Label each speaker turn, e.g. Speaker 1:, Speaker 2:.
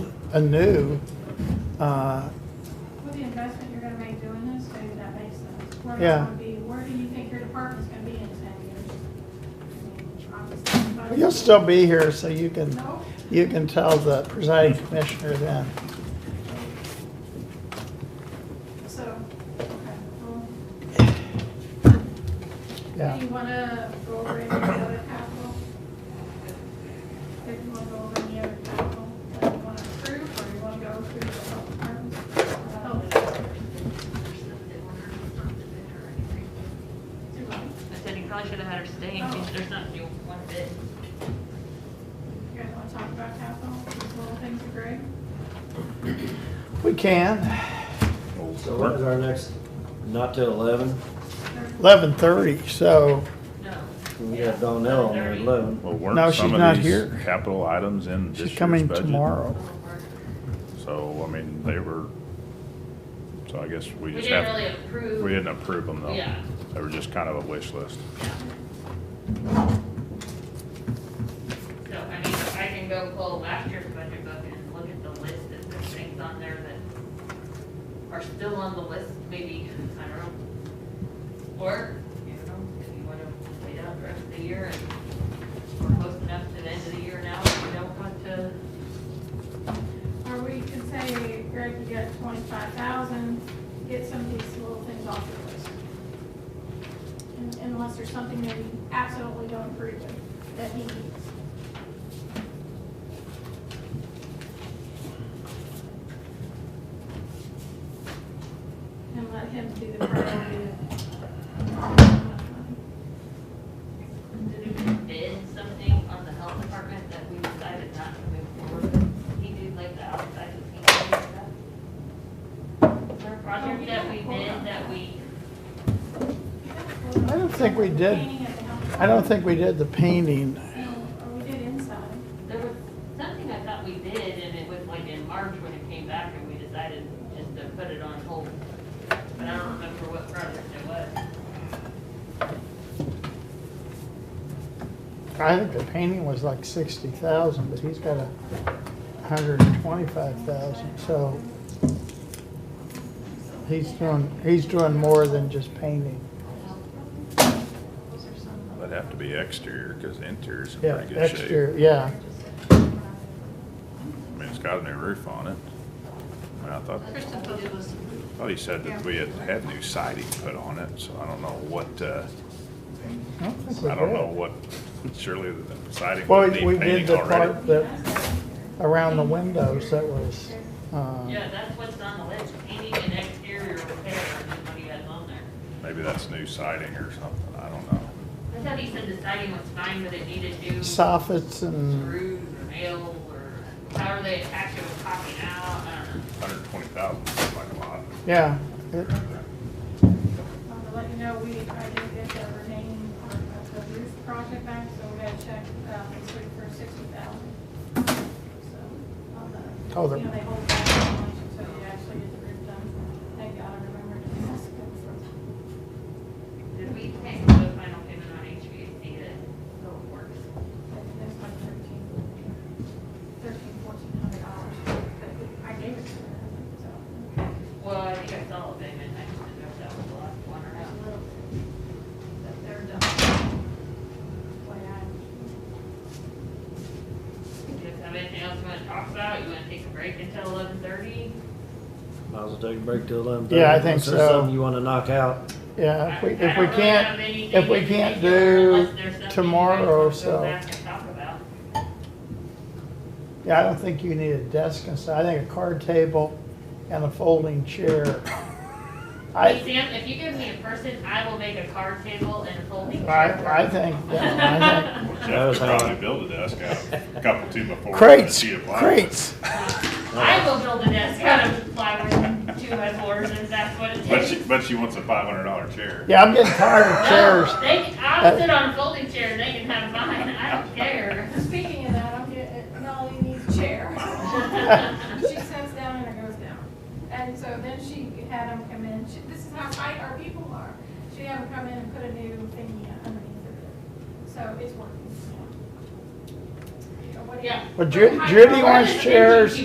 Speaker 1: anew, uh,
Speaker 2: With the investment you're gonna make doing this, maybe that makes sense. Where it's
Speaker 1: Yeah.
Speaker 2: gonna be, where do you think your department's gonna be in ten years? I mean, obviously, but-
Speaker 1: you'll still be here, so you can,
Speaker 2: No?
Speaker 1: you can tell the presiding commissioner then.
Speaker 2: So, okay, well, do
Speaker 1: Yeah,
Speaker 2: you wanna go over any other capital? If you wanna go over any other capital, that you wanna approve, or you wanna go through the health department? Uh, Do you
Speaker 3: I said you probably should have had her stay in case there's not new one bit.
Speaker 2: guys wanna talk about capital, these little things are great?
Speaker 1: we can.
Speaker 4: So when's our next, not till eleven?
Speaker 1: Eleven thirty, so,
Speaker 3: No.
Speaker 4: We got Donnell on there at eleven.
Speaker 5: Well, weren't
Speaker 1: No, she's
Speaker 5: some
Speaker 1: not
Speaker 5: of these
Speaker 1: here.
Speaker 5: capital items in this
Speaker 1: she's
Speaker 5: year's budget?
Speaker 1: coming tomorrow.
Speaker 5: So, I mean, they were, so I guess we
Speaker 3: We
Speaker 5: just
Speaker 3: didn't really
Speaker 5: have, we
Speaker 3: approve.
Speaker 5: didn't approve them though.
Speaker 3: Yeah.
Speaker 5: They were just kind of a wish list.
Speaker 3: So, I mean, I can go pull last year's budget book and look at the list of the things on there that are still on the list, maybe, I don't know. Or, you know, if you wanna wait out the rest of the year and we're close enough to the end of the year now, if you don't want to,
Speaker 2: Or we can say, Greg, you got twenty-five thousand, get some of these little things off your list. Un- Unless there's something that you absolutely don't agree with, that he needs. And let him do the priority.
Speaker 3: did we bid something on the health department that we decided not to move forward with? He did like the outside of the stuff. Is there a project that we did that we,
Speaker 1: I don't think we did.
Speaker 2: Painting at the house.
Speaker 1: I don't think we did the painting.
Speaker 2: No, or we did inside.
Speaker 3: there was something I thought we did and it was like in March when it came back and we decided just to put it on hold. But I don't remember what project it was.
Speaker 1: I think the painting was like sixty thousand, but he's got a hundred and twenty-five thousand, so he's doing, he's doing more than just painting.
Speaker 2: Those are some of
Speaker 5: That'd have to be exterior, cause interior's in
Speaker 1: Yeah,
Speaker 5: pretty good shape.
Speaker 1: exterior, yeah.
Speaker 5: I mean, it's got a new roof on it. I mean, I thought,
Speaker 6: Kristen thought it was,
Speaker 5: thought he said that we had had new siding put on it, so I don't know what, uh,
Speaker 1: I don't think we
Speaker 5: I don't
Speaker 1: did.
Speaker 5: know what, surely the siding
Speaker 1: Well,
Speaker 5: would need
Speaker 1: we did
Speaker 5: painting
Speaker 1: the
Speaker 5: already.
Speaker 1: part that, around the windows, that was, uh,
Speaker 3: Yeah, that's what's on the list, painting and exterior repair, is what he has on there.
Speaker 5: Maybe that's new siding or something, I don't know.
Speaker 3: I thought he said the siding was fine, but it needed new.
Speaker 1: soffits and,
Speaker 3: screws or nails or however they attach it with copy now, I don't know.
Speaker 5: Hundred twenty thousand seems like a lot.
Speaker 1: yeah. it-
Speaker 2: Um, to let you know, we, I did get the remaining part of the roof project back, so we gotta check, uh, this week for sixty thousand. So, on
Speaker 1: Oh,
Speaker 2: the,
Speaker 1: the-
Speaker 2: you know, they hold back so much until you actually get the roof done. Thank God I remembered to ask them for.
Speaker 3: Did we take the final payment on HVAC to go works?
Speaker 2: That's like thirteen, thirteen, fourteen hundred dollars, but I gave it to her, so.
Speaker 3: Well, I think I saw a payment, I just didn't know if that was the last one or
Speaker 2: a
Speaker 3: not.
Speaker 2: little bit, That they're done. Way I,
Speaker 3: Do you guys have anything else you wanna talk about? You wanna take a break until eleven thirty?
Speaker 4: Might as well take a break till eleven thirty.
Speaker 1: Yeah, I think so.
Speaker 4: Something you wanna knock out.
Speaker 1: Yeah, if we, if we can't, if we can't do tomorrow, so. Yeah, I don't think you need a desk and stuff. I think a card table and a folding chair.
Speaker 3: Hey,
Speaker 1: I,
Speaker 3: Sam, if you give me a person, I will make a card table and a folding chair.
Speaker 1: I, I think, yeah, I think.
Speaker 5: Well,
Speaker 4: That
Speaker 5: Jeff
Speaker 4: was
Speaker 5: could
Speaker 4: how-
Speaker 5: probably build a desk out, a couple two before.
Speaker 1: Crates,
Speaker 5: he applied.
Speaker 1: crates.
Speaker 3: I
Speaker 5: Uh,
Speaker 3: will build a desk out of plywood, and two by fours, if that's what it
Speaker 5: But
Speaker 3: takes.
Speaker 5: she, but she wants a five hundred dollar chair.
Speaker 1: Yeah, I'm getting tired of
Speaker 3: No,
Speaker 1: chairs.
Speaker 3: They, can-
Speaker 5: Uh,
Speaker 3: I'll sit on a folding chair, and they can have mine, I don't care.
Speaker 2: speaking of that, I'm getting, Nolly needs a chair. She sits down and it goes down. And so then she had them come in, she, this is how tight our people are. She had them come in and put a new thingy underneath of it. So it's working. Yeah. What do you-
Speaker 3: Yeah.
Speaker 1: But Ju- Judy
Speaker 3: Or
Speaker 1: wants
Speaker 3: just-
Speaker 1: chairs.